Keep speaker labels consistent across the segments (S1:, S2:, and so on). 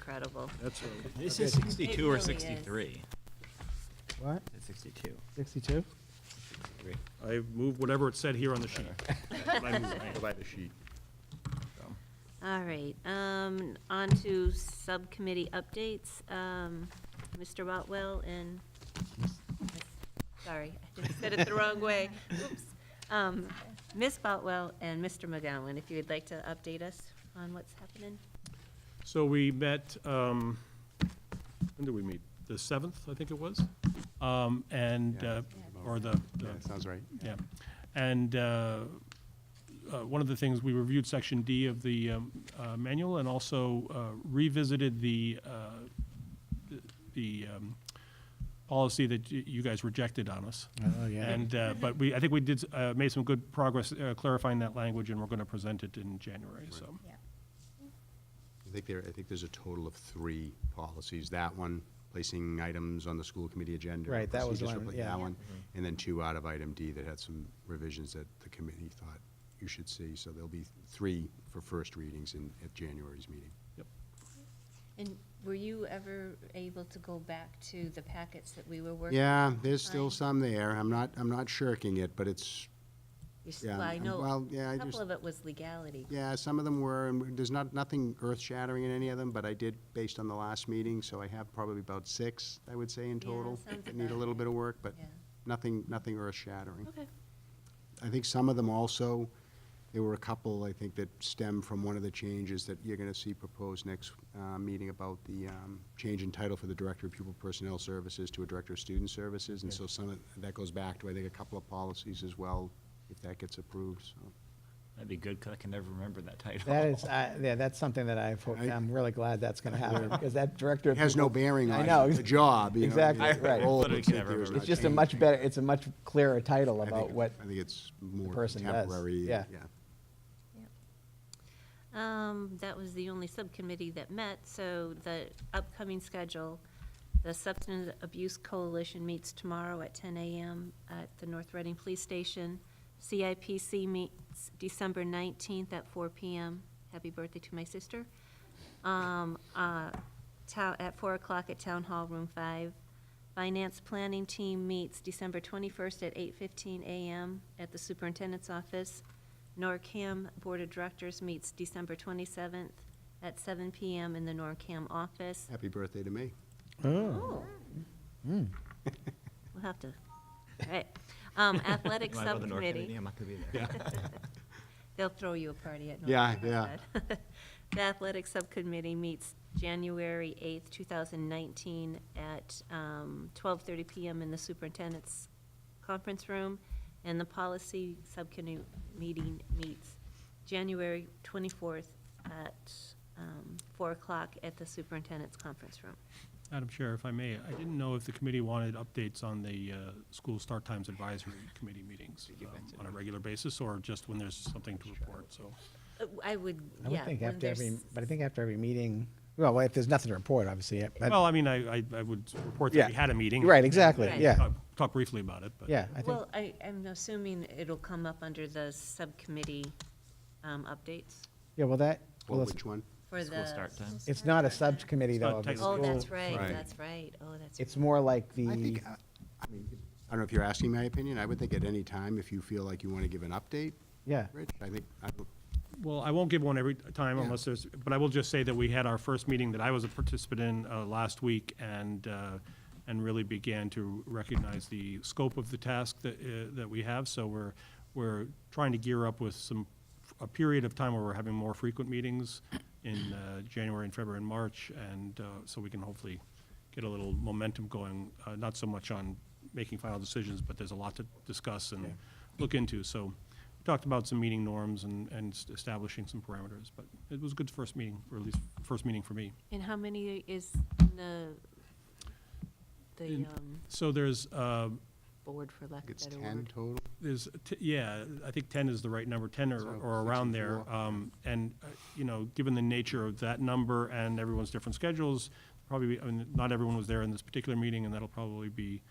S1: incredible.
S2: That's a-
S3: This is
S2: okay.
S3: 62 or
S1: really is.
S3: 63?
S4: What?
S3: It's 62.
S4: Sixty-two?
S3: Three.
S2: I move whatever it said here on the sheet. I move it.
S5: Provide the sheet.
S1: All right, um, on to subcommittee updates. Um, Mr. Rotwell and, sorry, I just said it the wrong way. Oops. Um, Ms. Botwell and Mr. McGowan, if you would like to update us on what's happening.
S2: So we met, um, when did we meet? The 7th, I think it was? Um, And,
S5: Yeah.
S2: uh, or the,
S5: Yeah,
S2: the-
S5: sounds right.
S2: yeah. And uh, uh, one of the things, we reviewed Section D of the um, uh, manual and also uh, revisited the, uh, the um, policy that y- you guys rejected on us.
S4: Oh, yeah.
S2: And, uh, but we, I think we did, uh, made some good progress uh, clarifying that language, and we're going to present it in January, so.
S5: I think there, I think there's a total of three policies. That one, placing items on the school committee agenda.
S4: Right, that was the
S5: procedures for
S4: one,
S5: pla-
S4: yeah. Mm-hmm.
S5: That one, and then two out of item D that had some revisions that the committee thought you should see. So there'll be three for first readings in, at January's meeting.
S1: And were you ever able to go back to the packets that we were working?
S5: Yeah, there's still
S1: Fine.
S5: some there. I'm not, I'm not shirking it, but it's,
S1: You s-
S5: yeah,
S1: Well, I
S5: um,
S1: know,
S5: well, yeah, I
S1: a
S5: just-
S1: couple of it was legality.
S5: Yeah, some of them were, and there's not, nothing earth-shattering in any of them, but I did, based on the last meeting, so I have probably about six, I would say, in
S1: Yeah,
S5: total.
S1: sounds
S5: that Need a
S1: about
S5: little
S1: right.
S5: bit of work, but
S1: Yeah.
S5: nothing, nothing earth-shattering.
S1: Okay.
S5: I think some of them also, there were a couple, I think, that stem from one of the changes that you're gonna see proposed next, uh, meeting about the, um, change in title for the Director of Pupil Personnel Services to a Director of Student Services, and so some of, that goes back to, I think, a couple of policies as well, if that gets approved, so.
S3: That'd be good, because I can never remember that title.
S4: That is, I, yeah, that's something that I've, hoped-
S5: I-
S4: I'm really glad that's gonna happen, because that director. of
S5: It has no
S4: people-
S5: bearing
S4: I
S5: on
S4: know,
S5: the job, you know.
S4: exactly,
S5: the
S4: right.
S5: role,
S3: Literally
S5: but
S3: can
S5: if
S3: never
S5: there's
S3: remember.
S5: not
S4: It's just a
S5: change,
S4: much better, it's a much clearer title
S5: I think
S4: about
S5: it-
S4: what,
S5: I think it's more
S4: person does,
S5: contemporary, yeah.
S4: yeah.
S1: Um, that was the only subcommittee that met, so the upcoming schedule, the Substance Abuse Coalition meets tomorrow at ten AM at the North Reading Police Station. CIPC meets December nineteenth at four PM. Happy birthday to my sister. Um, uh, town, at four o'clock at Town Hall, Room Five. Finance Planning Team meets December twenty-first at eight fifteen AM at the Superintendent's Office. NORCAM Board of Directors meets December 27th at 7 PM in the NORCAM office.
S5: Happy birthday to me.
S1: Oh. We'll have to, all right. Um, Athletic
S3: Am I about the North Kennedy?
S1: Subcommittee,
S3: I'm not gonna be there.
S1: they'll throw you a party at NORCAM.
S5: Yeah, yeah.
S1: yeah. The Athletic Subcommittee meets January 8th, 2019 at um, 12:30 PM in the Superintendent's Conference Room. And the Policy Subcommittee meeting meets January 24th at um, 4 o'clock at the Superintendent's Conference Room.
S2: Madam Chair, if I may, I didn't know if the committee wanted updates on the uh, school start times advisory committee meetings um, on a regular basis, or just when there's something to report, so.
S1: Uh, I would,
S4: I
S1: yeah.
S4: would think
S1: when
S4: after every,
S1: there's-
S4: but I think after every meeting, well, well, if there's nothing to report, obviously, yeah, but,
S2: Well, I mean, I, I- I would report that we
S4: Yeah.
S2: had a meeting.
S4: right, exactly,
S1: Right.
S4: yeah,
S2: Talk- Talk briefly about it, but.
S4: yeah, I think,
S1: Well, I, I'm assuming it'll come up under the subcommittee um, updates
S4: yeah, well, that, well,
S5: Well,
S4: it's,
S5: which one?
S1: for the.
S3: School start time.
S4: it's not a subcommittee
S2: It's not
S4: though. of the
S2: technically-
S1: Oh, that's
S4: school.
S1: right,
S5: Right.
S1: that's right, oh, that's.
S4: It's
S1: right.
S4: more like
S5: I think,
S4: the,
S5: uh, I mean, I don't know if you're asking my opinion, I would think at any time, if you feel like you want to give an update,
S4: yeah,
S5: Rich, I think, I don't-
S2: Well, I won't give one every time
S5: Yeah.
S2: unless there's, but I will just say that we had our first meeting that I was a participant in uh, last week and, uh, and really began to recognize the scope of the task that, uh, that we have. So we're, we're trying to gear up with some, a period of time where we're having more frequent meetings in uh, January and February and March. And uh, so we can hopefully get a little momentum going, uh, not so much on making final decisions, but there's a lot to discuss and look into. So we talked about some meeting norms and, and s- establishing some parameters, but it was a good first meeting, or at least first meeting for me.
S1: And how many is the, the
S2: In-
S1: um,
S2: So there's, uh,
S1: board for lack of
S5: it's
S1: a better
S5: 10
S1: word?
S5: total.
S2: there's, t- yeah, I think ten is the right number, ten or,
S5: So,
S2: or around there.
S5: 64.
S2: Um, and, uh, you know, given the nature of that number and everyone's different schedules, probably, I mean, not everyone was there in this particular meeting, and that'll probably be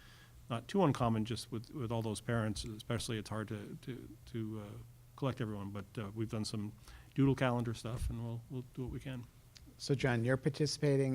S2: not too uncommon just with, with all those parents, especially it's hard to, to, to, uh, collect everyone, but, uh, we've done some doodle calendar stuff, and we'll, we'll do what we can.
S4: So John, you're participating